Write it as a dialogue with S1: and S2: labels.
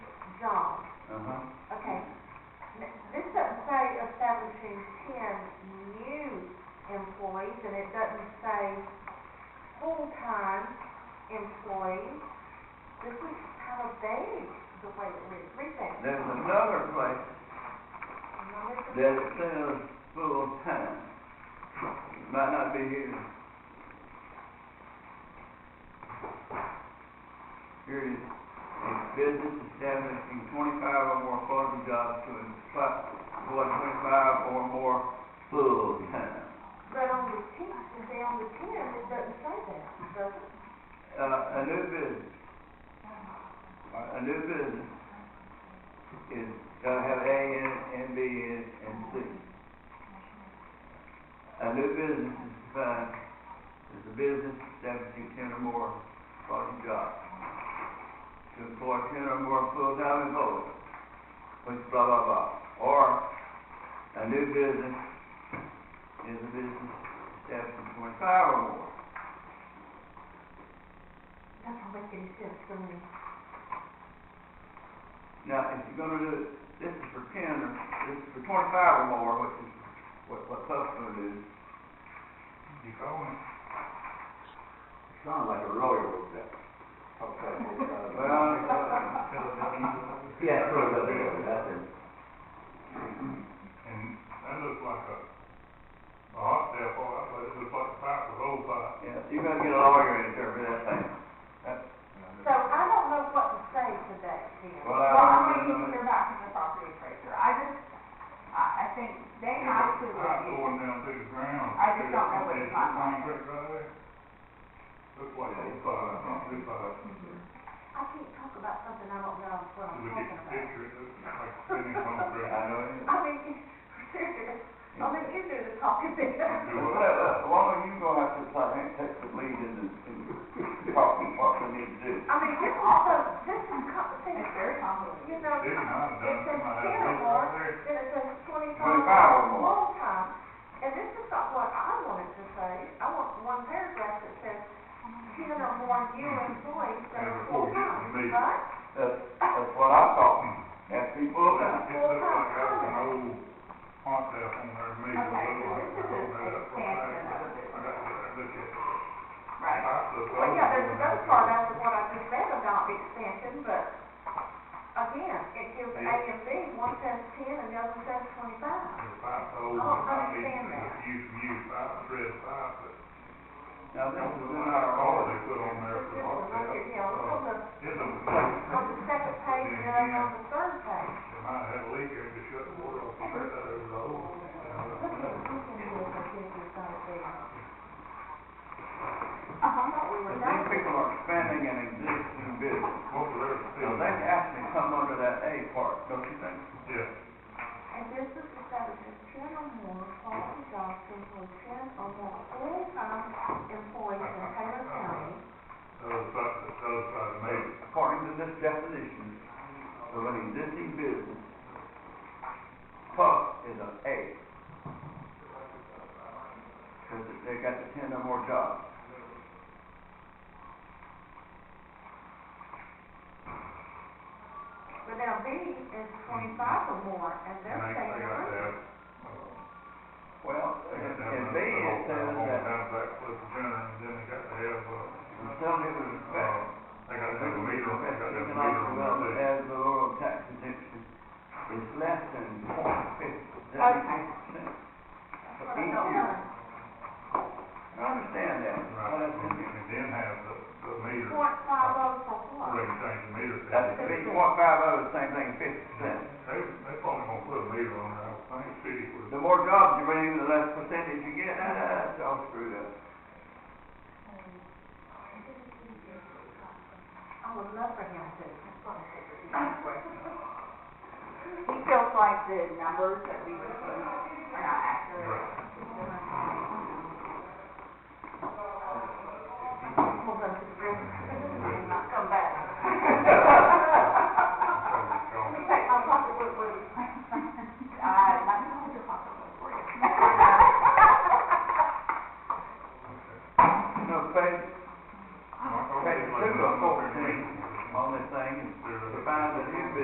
S1: Uh-huh.
S2: employees, and it doesn't say full-time employees. This is kind of vague, the way that we read that.
S1: There's another place
S2: Now, this is-
S1: that it says full-time. Might not be here. Here it is. A business establishing twenty-five or more full-time jobs to employ employ twenty-five or more full-time.
S2: But on the ten, down the ten, it doesn't say that, does it?
S1: Uh, a new business. A new business is, gotta have A in it, and B in it, and C. A new business is defined as a business establishing ten or more part-time jobs. To employ ten or more full-time employees, which blah, blah, blah. Or, a new business is a business establishing twenty-five or more.
S2: Doesn't make any sense to me.
S1: Now, if you're gonna do, it- this is for ten, or this is for twenty-five or more, which is what, what Puff's gonna do.
S3: You going?
S4: Sounded like a lawyer was that. Okay.
S1: Well, uh,
S4: Yeah, Philadelphia, that's it.
S3: And that looks like a, a hot cell phone, I thought it looked like a pipe, a roll pipe.
S1: yeah, you're gonna get a lawyer to interpret that thing.
S2: So I don't know what to say today, then.
S1: Well,
S5: Well,
S1: I,
S5: I'm gonna keep your back from the property appraiser, I just, I, I think they have to uh,
S3: Pipe
S5: review.
S3: going down through the ground.
S5: I just don't know what
S3: Is
S5: it's
S3: it
S5: like.
S3: Concrete right there? Looks like a roll pipe, not a pipe.
S5: Mm-hmm.
S2: I can't talk about something I don't know what I'm
S3: You
S2: talking
S3: look at the
S2: about.
S3: picture, it looks like spinning concrete.
S1: I know it.
S2: I mean, serious, I mean, you do the talking there.
S3: Do
S1: Well,
S3: what?
S1: uh, why don't you go out to the site and take the lead in the, in talking what we need to do?
S2: I mean, this also, this is complicated.
S5: It's very complicated.
S2: You know,
S3: They might have done,
S2: it
S3: they
S2: says
S3: might have
S2: ten or
S3: built
S2: more,
S3: right there.
S2: then it says twenty-five
S1: Twenty-five or more.
S2: full time. And this is not what I wanted to say. I want one paragraph that says ten or more new employees that are
S3: Never
S2: full
S3: forget
S2: time,
S3: me.
S2: right?
S1: That's, that's what I thought, that's be full-time.
S3: It looks like that was an old hot cell phone there, maybe a
S5: Okay,
S3: little
S5: so
S3: like.
S5: this is an expansion of a
S3: I
S5: business,
S3: got to look at it.
S5: right?
S2: Well, yeah, there's another part after what I just read about the expansion, but again, it gives A and B, one says ten and the other says twenty-five.
S1: Now, this is in our order.
S2: It's just another, you know, it's on the, on the second page and then on the third page. Look at, look at this, I think it's gonna be.
S5: I thought we were
S1: But
S5: done.
S1: these people are expanding an existing business, so they actually come under that A part, don't you think?
S2: And this is establishes ten or more quality jobs to employ ten or more full-time employees in Taylor County.
S1: According to this definition of an existing business, puff is an A. Because they got the ten or more jobs.
S2: But now B is twenty-five or more, and they're saying a hundred.
S1: Well, in in B, it says that the facility was inspected.
S3: They got to have a meter, they got to have a
S1: Economic
S3: meter on
S1: development as
S3: that.
S1: the rural tax exemption is less than point fifty,
S5: Okay.
S1: percent.
S2: That's what I don't know.
S1: I understand that, but
S3: Right,
S1: that's in here.
S3: and then have the, the meter, or
S2: Point five oh for what?
S3: they can change the meter.
S1: That's
S3: They,
S1: three point five oh, the same thing, fifty percent.
S3: they probably gonna put a meter on there, I think, city would.
S1: The more jobs you bring in, the less percentage you get, ah, it's all screwed up.
S2: I would love for him to.
S5: He feels like the numbers that we were seeing are not accurate, Uh,